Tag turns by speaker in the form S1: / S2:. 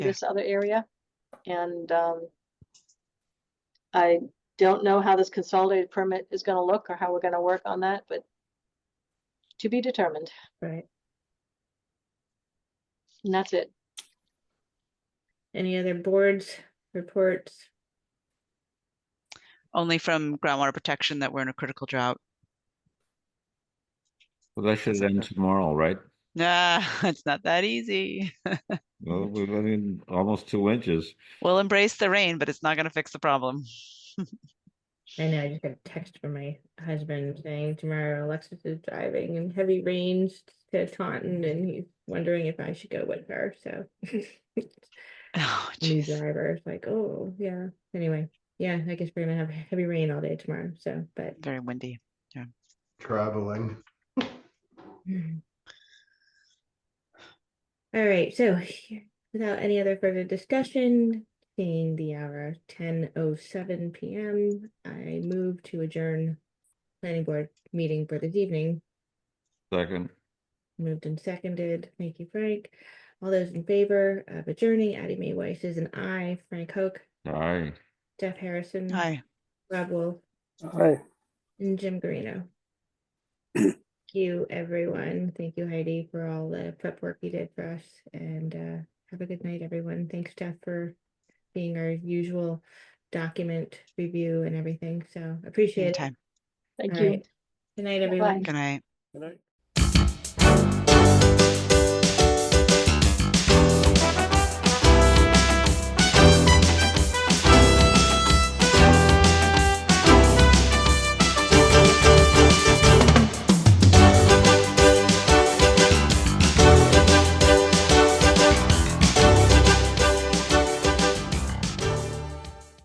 S1: Yeah.
S2: this other area. And um, I don't know how this consolidated permit is gonna look or how we're gonna work on that, but to be determined,
S3: Right.
S2: and that's it.
S3: Any other boards, reports?
S1: only from groundwater protection that we're in a critical drought.
S4: Well, that should
S1: Something.
S4: end tomorrow, right?
S1: Nah, it's not that easy.
S4: Well, we're getting almost two inches.
S1: We'll embrace the rain, but it's not gonna fix the problem.
S3: I know, I just got a text from my husband saying tomorrow Alexis is driving in heavy rains to Taunton and he's wondering if I should go with her, so.
S1: Oh,
S3: New
S1: jeez.
S3: driver, it's like, oh, yeah, anyway, yeah, I guess we're gonna have heavy rain all day tomorrow, so, but.
S1: Very windy.
S5: traveling.
S3: Mhm. All right, so here- without any other further discussion, seeing the hour ten oh seven PM, I move to adjourn planning board meeting for this evening.
S4: Second,
S3: Moved and seconded. Thank you, Frank. All those in favor of adjourning, Addie Mae Weiss is an aye. Frank Hoke,
S4: aye.
S3: Jeff Harrison.
S1: Hi,
S3: Rob Wolf.
S6: Hi.
S3: And Jim Garino. Thank you, everyone. Thank you, Heidi, for all the prep work you did for us. And uh, have a good night, everyone. Thanks, Jeff, for being our usual document review and everything. So appreciate it.
S1: anytime.
S2: Thank
S3: All
S2: you.
S3: right. Good night, everyone.
S1: Good night.
S6: Good night.